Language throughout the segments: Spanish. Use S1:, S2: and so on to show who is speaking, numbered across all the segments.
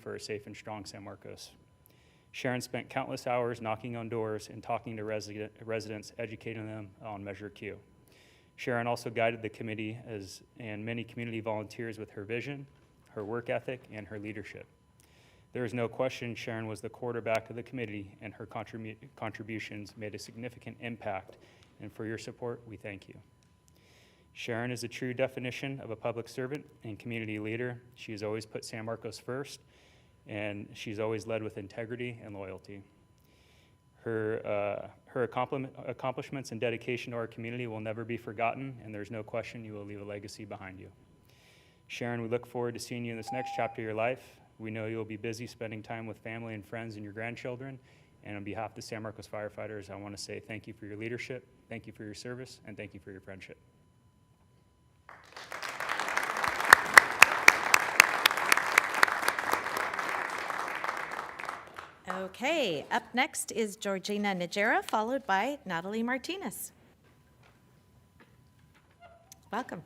S1: for a safe and strong San Marcos. Sharon spent countless hours knocking on doors and talking to resident, residents, educating them on Measure Q. Sharon also guided the committee as, and many community volunteers with her vision, her work ethic, and her leadership. There is no question Sharon was the quarterback of the committee, and her contribu- contributions made a significant impact. And for your support, we thank you. Sharon is a true definition of a public servant and community leader. She has always put San Marcos first, and she's always led with integrity and loyalty. Her, uh, her accomplishment- accomplishments and dedication to our community will never be forgotten, and there's no question you will leave a legacy behind you. Sharon, we look forward to seeing you in this next chapter of your life. We know you'll be busy spending time with family and friends and your grandchildren. And on behalf of the San Marcos firefighters, I want to say thank you for your leadership, thank you for your service, and thank you for your friendship.
S2: Okay, up next is Georgina Najera, followed by Natalie Martinez. Welcome.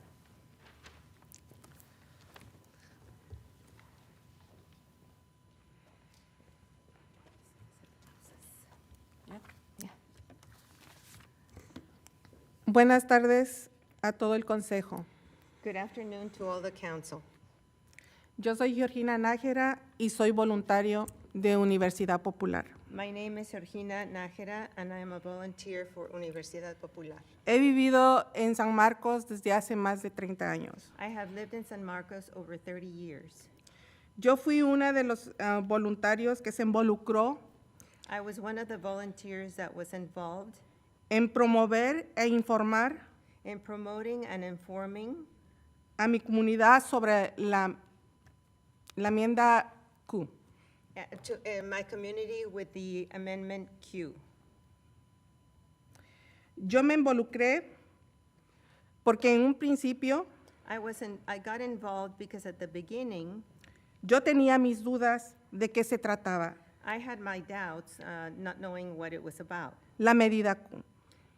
S3: Buenas tardes a todo el Consejo.
S4: Good afternoon to all the council.
S3: Yo soy Georgina Nájera y soy voluntario de Universidad Popular.
S4: My name is Georgina Nájera, and I am a volunteer for Universidad Popular.
S3: He vivido en San Marcos desde hace más de 30 años.
S4: I have lived in San Marcos over 30 years.
S3: Yo fui una de los ah, voluntarios que se involucró
S4: I was one of the volunteers that was involved
S3: en promover e informar
S4: in promoting and informing
S3: a mi comunidad sobre la, la enmienda Q.
S4: uh, to uh, my community with the Amendment Q.
S3: Yo me involucré porque en un principio
S4: I was in, I got involved because at the beginning,
S3: yo tenía mis dudas de qué se trataba
S4: I had my doubts, uh, not knowing what it was about,
S3: la medida Q.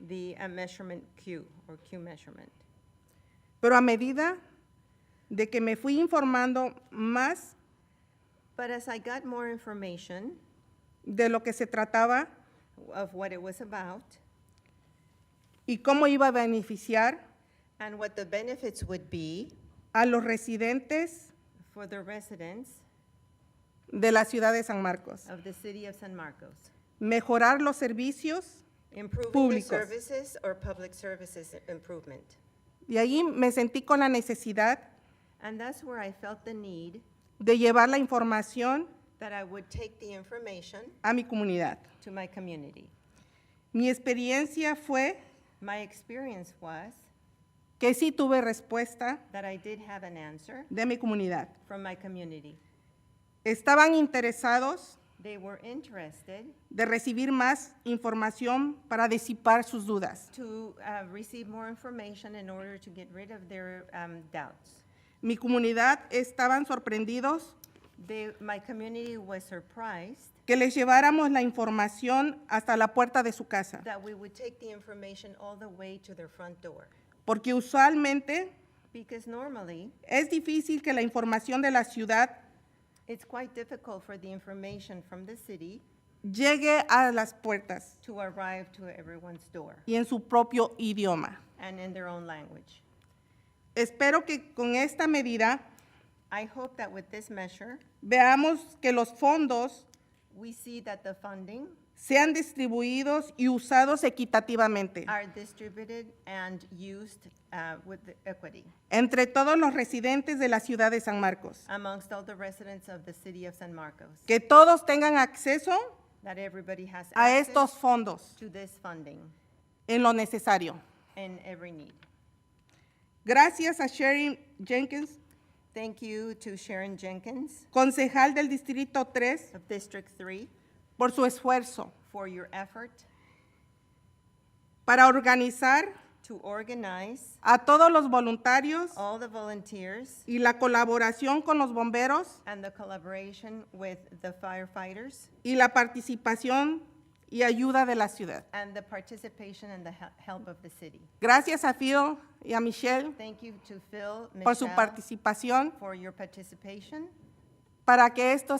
S4: the uh, measurement Q or Q measurement.
S3: Pero a medida de que me fui informando más
S4: But as I got more information
S3: de lo que se trataba
S4: of what it was about,
S3: y cómo iba a beneficiar
S4: And what the benefits would be
S3: a los residentes
S4: for the residents
S3: de la ciudad de San Marcos,
S4: of the city of San Marcos.
S3: mejorar los servicios,
S4: Improving the
S3: Públicos.
S4: services or public services improvement.
S3: y ahí me sentí con la necesidad
S4: And that's where I felt the need
S3: de llevar la información
S4: that I would take the information
S3: a mi comunidad.
S4: to my community.
S3: Mi experiencia fue
S4: My experience was
S3: que sí tuve respuesta
S4: that I did have an answer
S3: de mi comunidad.
S4: from my community.
S3: Estaban interesados
S4: They were interested
S3: de recibir más información para disipar sus dudas.
S4: to uh, receive more information in order to get rid of their um, doubts.
S3: Mi comunidad estaban sorprendidos
S4: They, my community was surprised
S3: que les lleváramos la información hasta la puerta de su casa,
S4: that we would take the information all the way to their front door.
S3: porque usualmente
S4: Because normally,
S3: es difícil que la información de la ciudad
S4: it's quite difficult for the information from the city
S3: llegue a las puertas
S4: to arrive to everyone's door
S3: y en su propio idioma.
S4: and in their own language.
S3: Espero que con esta medida
S4: I hope that with this measure,
S3: veamos que los fondos
S4: we see that the funding
S3: sean distribuidos y usados equitativamente
S4: are distributed and used uh, with equity
S3: entre todos los residentes de la ciudad de San Marcos,
S4: amongst all the residents of the city of San Marcos,
S3: que todos tengan acceso
S4: that everybody has
S3: a estos
S4: access
S3: fondos
S4: to this funding
S3: en lo necesario.
S4: in every need.
S3: Gracias a Sherry Jenkins
S4: Thank you to Sharon Jenkins
S3: concejal del Distrito 3,
S4: of District 3
S3: por su esfuerzo
S4: for your effort
S3: para organizar
S4: to organize
S3: a todos los voluntarios
S4: all the volunteers
S3: y la colaboración con los bomberos
S4: and the collaboration with the firefighters
S3: y la participación y ayuda de la ciudad.
S4: and the participation and the he- help of the city.
S3: Gracias a Phil y a Michelle
S4: Thank you to Phil,
S3: por su
S4: Michelle,
S3: participación
S4: for your participation.
S3: para que esto